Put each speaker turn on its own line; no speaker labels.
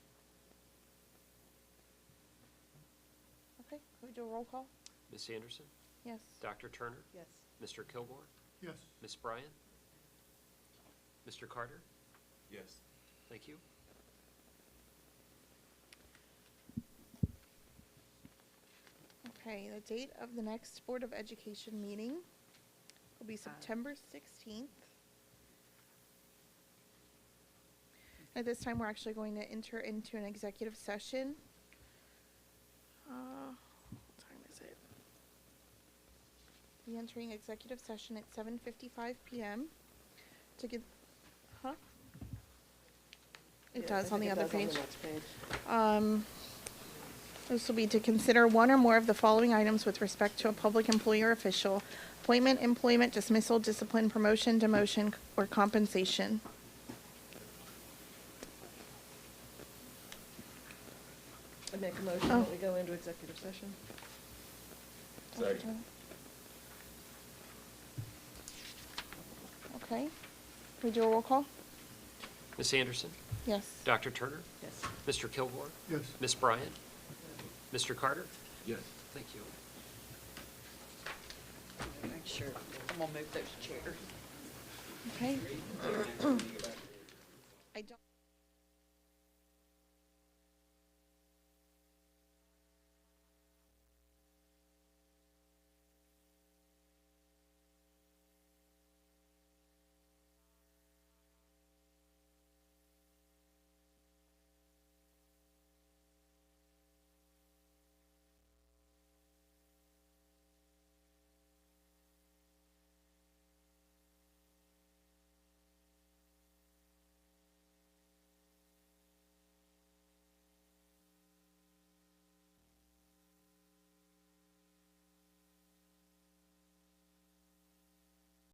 Okay, can we do a roll call?
Ms. Anderson,
Yes.
Dr. Turner,
Yes.
Mr. Kilgore,
Yes.
Ms. Bryan, Mr. Carter,
Yes.
thank you.
Okay, the date of the next Board of Education meeting will be September 16th. At this time, we're actually going to enter into an executive session. Uh, What time is it? Be entering executive session at 7:55 PM to get, huh? It does on the other page. Um, This will be to consider one or more of the following items with respect to a public employee or official, appointment, employment, dismissal, discipline, promotion, demotion, or compensation.
I make a motion
Oh.
that we go into executive session.
Second.
Okay, we do a roll call?
Ms. Anderson,
Yes.
Dr. Turner,
Yes.
Mr. Kilgore,
Yes.
Ms. Bryan, Mr. Carter,
Yes.
thank you.
Make sure, I'm gonna move those chairs.
Okay,